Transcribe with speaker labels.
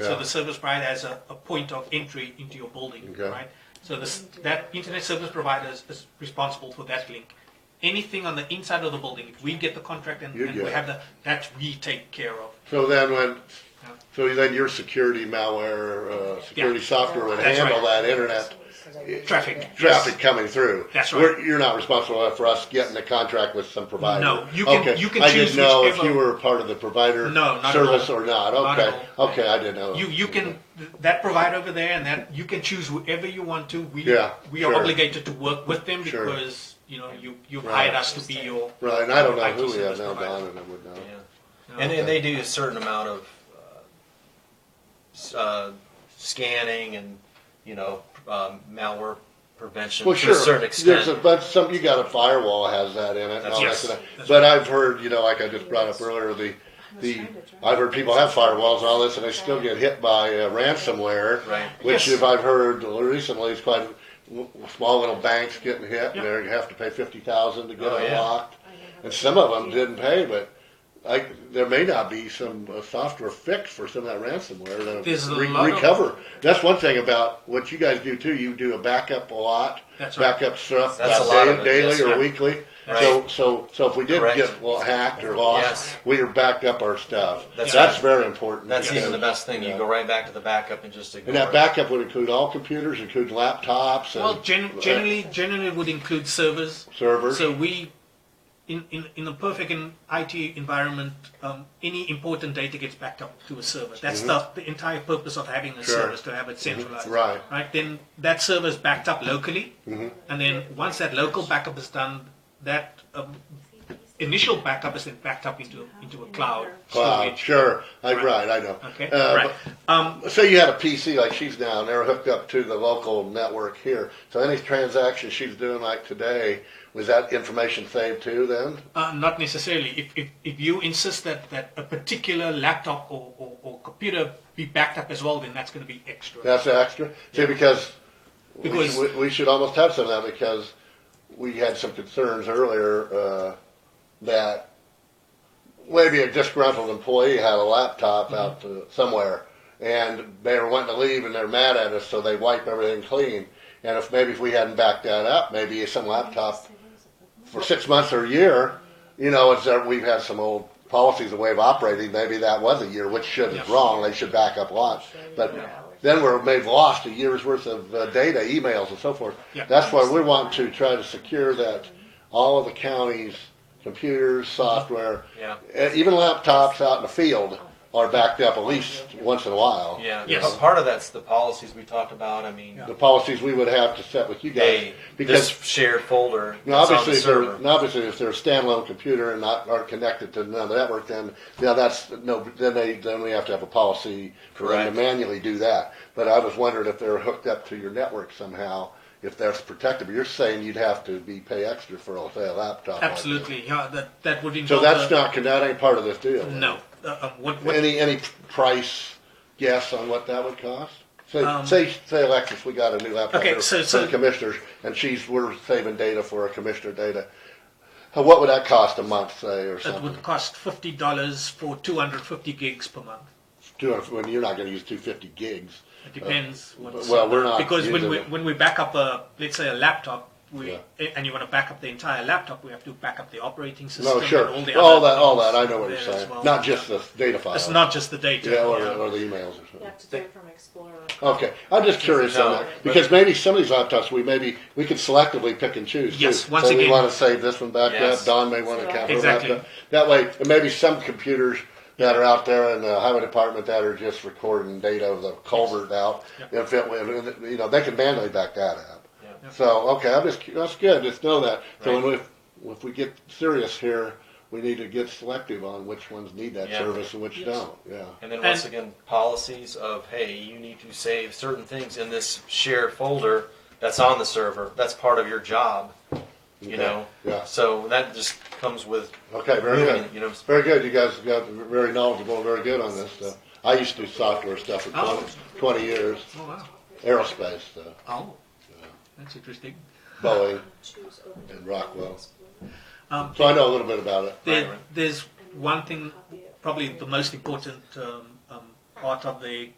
Speaker 1: So
Speaker 2: Yeah.
Speaker 1: the service provider has a, a point of entry into your building,
Speaker 2: Okay.
Speaker 1: right? So this, that internet service provider is, is responsible for that link. Anything on the inside of the building, if we get the contract and,
Speaker 2: You
Speaker 1: and
Speaker 2: get
Speaker 1: we
Speaker 2: it.
Speaker 1: have the, that we take care of.
Speaker 2: So then when,
Speaker 1: Yeah.
Speaker 2: so then your security malware, uh, security
Speaker 1: Yeah.
Speaker 2: software would
Speaker 1: That's
Speaker 2: handle
Speaker 1: right.
Speaker 2: that internet
Speaker 1: Traffic.
Speaker 2: traffic coming through.
Speaker 1: That's right.
Speaker 2: We're- You're not responsible for us getting a contract with some provider.
Speaker 1: No, you can-
Speaker 2: Okay.
Speaker 1: you can
Speaker 2: I didn't
Speaker 1: choose
Speaker 2: know if
Speaker 1: whichever-
Speaker 2: you were part of the provider
Speaker 1: No, not at
Speaker 2: service
Speaker 1: all.
Speaker 2: or not.
Speaker 1: Not at
Speaker 2: Okay, okay, I didn't know.
Speaker 1: You, you can, that provider over there and that, you can choose whoever you want to. We,
Speaker 2: Yeah,
Speaker 1: we are
Speaker 2: sure.
Speaker 1: obligated to work with them
Speaker 2: Sure.
Speaker 1: because, you know, you, you've
Speaker 2: Right.
Speaker 1: hired us to be your.
Speaker 2: Right, and I don't know
Speaker 1: IT
Speaker 2: who we have
Speaker 1: service
Speaker 2: now,
Speaker 1: provider.
Speaker 2: Don, and I would know.
Speaker 1: Yeah.
Speaker 3: And then they do a certain amount of uh, s- uh, scanning and, you know, um, malware prevention
Speaker 2: Well,
Speaker 3: to
Speaker 2: sure.
Speaker 3: a certain extent.
Speaker 2: There's a, but some you got a firewall has that in it. And all
Speaker 1: Yes.
Speaker 2: that kind of,
Speaker 1: That's
Speaker 2: but I've heard, you know, like I just brought up earlier, the the I've heard people have firewalls and all this, and they still get hit by uh, ransomware.
Speaker 3: Right.
Speaker 2: Which,
Speaker 1: Yes.
Speaker 2: if I've heard recently, is quite w- small little banks getting hit.
Speaker 1: Yeah.
Speaker 2: and They have to pay fifty thousand to get
Speaker 3: Oh,
Speaker 2: it
Speaker 3: yeah.
Speaker 2: locked, and some of them didn't pay. But like, there may not be some uh, software fix for some of that ransomware
Speaker 1: There's
Speaker 2: to
Speaker 1: a
Speaker 2: re-
Speaker 1: lot of-
Speaker 2: recover. That's one thing about what you guys do too. You do a backup a lot,
Speaker 1: That's right.
Speaker 2: backup stuff
Speaker 3: That's a
Speaker 2: da-
Speaker 3: lot of it,
Speaker 2: daily
Speaker 3: yes,
Speaker 2: or
Speaker 3: yeah.
Speaker 2: weekly.
Speaker 3: Right.
Speaker 2: So, so, so if we did
Speaker 3: Correct.
Speaker 2: get well, hacked or lost,
Speaker 3: Yes.
Speaker 2: we are backed up our stuff. That's,
Speaker 3: That's
Speaker 2: very important.
Speaker 3: That's
Speaker 2: because-
Speaker 3: even the best thing. You go right back to the backup and just ignore
Speaker 2: And that
Speaker 3: it.
Speaker 2: backup would include all computers, including laptops and
Speaker 1: Well, gen- generally, generally it would include servers.
Speaker 2: servers.
Speaker 1: So we, in, in, in a perfect in IT environment, um, any important data gets backed up to a server. That's the, the entire purpose of having a
Speaker 2: Mm-hmm. Sure.
Speaker 1: server is to have it centralized.
Speaker 2: Right. Mm-hmm.
Speaker 1: Right. Then that server is backed up locally, and then once that local backup is done, that um, initial backup is then backed up into into a cloud
Speaker 2: Cloud,
Speaker 1: storage.
Speaker 2: sure, I, right.
Speaker 1: Right.
Speaker 2: I know.
Speaker 1: Okay.
Speaker 2: Uh,
Speaker 1: right. Um,
Speaker 2: but- Say you had a PC like she's down there hooked up to the local network here. So any transaction she's doing like today, was that information saved too then?
Speaker 1: Uh, not necessarily. If, if, if you insist that, that a particular laptop or, or, or computer be backed up as well, then that's going to be extra.
Speaker 2: That's extra. See, because, we
Speaker 1: Because-
Speaker 2: should- we, we should almost have some of that because we had some concerns earlier uh, that maybe a disgruntled employee had a laptop out to, somewhere and they were wanting to leave and they're mad at us, so they wipe everything clean. And if maybe if we hadn't backed that up, maybe some laptop for six months or a year, you know, it's that we've had some old policies, a way of operating. Maybe that was a year, which shouldn't
Speaker 1: Yes.
Speaker 2: wrong. They should back up lots, but then we're maybe lost a year's worth of uh, data, emails, and so forth.
Speaker 1: Yeah.
Speaker 2: That's why we want to try to secure that all of the counties. Computers,
Speaker 1: Mm-hmm.
Speaker 2: software,
Speaker 3: Yeah.
Speaker 2: uh, even laptops out in the field are backed up at least once in a while.
Speaker 3: Yeah.
Speaker 1: Yes.
Speaker 3: But part of that's the policies we talked about. I mean,
Speaker 1: Yeah.
Speaker 2: The policies we would have to set with you guys
Speaker 3: hey, this shared folder
Speaker 2: Now,
Speaker 3: that's on
Speaker 2: obviously,
Speaker 3: the
Speaker 2: if they're,
Speaker 3: server.
Speaker 2: now, obviously, if they're a standalone computer and not aren't connected to another network, then now that's no. Then they then we have to have a policy for them to
Speaker 3: Correct.
Speaker 2: manually do that. But I was wondering if they're hooked up to your network somehow, if that's protected. But you're saying you'd have to be pay extra for say a laptop. like that.
Speaker 1: Absolutely. Yeah, that, that would
Speaker 2: So
Speaker 1: involve.
Speaker 2: that's
Speaker 1: a-
Speaker 2: not that ain't part of this deal. is it?
Speaker 1: No. Uh, um, what, what,
Speaker 2: Any any price guess on what that would cost? Say,
Speaker 1: Um,
Speaker 2: say, say, Alexis, we got a new laptop
Speaker 1: Okay,
Speaker 2: here
Speaker 1: so-
Speaker 2: for
Speaker 1: so-
Speaker 2: the commissioners, and she's we're saving data for our commissioner data. Uh, What would that cost a month, say, or
Speaker 1: that
Speaker 2: something?
Speaker 1: would cost $50 for 250 gigs per month.
Speaker 2: Two hundred. When you're not going to use two fifty gigs.
Speaker 1: It depends. what's-
Speaker 2: Uh, well, we're not
Speaker 1: Because when
Speaker 2: using
Speaker 1: we,
Speaker 2: it.
Speaker 1: when we back up, a, let's say, a laptop, we,
Speaker 2: Yeah.
Speaker 1: and you want to back up the entire laptop, we have to back up the operating system
Speaker 2: No, sure.
Speaker 1: and all the
Speaker 2: All
Speaker 1: other
Speaker 2: that, all
Speaker 1: things
Speaker 2: that. I know what you're
Speaker 1: there as
Speaker 2: saying.
Speaker 1: well.
Speaker 2: Not just the data file.
Speaker 1: It's not just the data.
Speaker 2: Yeah, or,
Speaker 1: yeah.
Speaker 2: or the emails or
Speaker 4: You
Speaker 2: something.
Speaker 4: have to do it from Explorer.
Speaker 2: Okay, I'm just curious on
Speaker 3: No,
Speaker 2: that
Speaker 3: but-
Speaker 2: because maybe some of these laptops we maybe we could selectively pick and choose. too.
Speaker 1: Yes, once
Speaker 2: so we
Speaker 1: again-
Speaker 2: want to save this one back up.
Speaker 3: Yes.
Speaker 2: Don may want to cap her
Speaker 1: Exactly.
Speaker 2: laptop. That way, and maybe some computers that are out there in the highway department that are just recording data of the culvert out. If it, if it- you know, they can manually back that up.
Speaker 3: Yeah.
Speaker 2: So okay, I'm just cu- that's good. Just know that. So when we, if we get serious here, we need to get selective on which ones need that
Speaker 3: Yeah.
Speaker 2: service and which don't. Yeah.
Speaker 3: And then
Speaker 1: And-
Speaker 3: once again, policies of hey, you need to save certain things in this shared folder that's on the server. That's part of your job. You
Speaker 2: Okay.
Speaker 3: know.
Speaker 2: Yeah.
Speaker 3: So that just comes with.
Speaker 2: Okay, very
Speaker 3: moving
Speaker 2: good.
Speaker 3: it, You know.
Speaker 2: Very good. You guys got very knowledgeable, and very good on this stuff. I used to do software stuff for 20,
Speaker 1: Oh.
Speaker 2: 20 years,
Speaker 1: Oh, wow.
Speaker 2: aerospace stuff,
Speaker 1: Oh, that's interesting.
Speaker 2: Boeing,
Speaker 4: Choose open
Speaker 2: and Rockwell.
Speaker 1: Um,
Speaker 2: So I know a little bit about it.
Speaker 1: there,
Speaker 3: Right.
Speaker 1: there's one thing, probably the most important um, um, part of the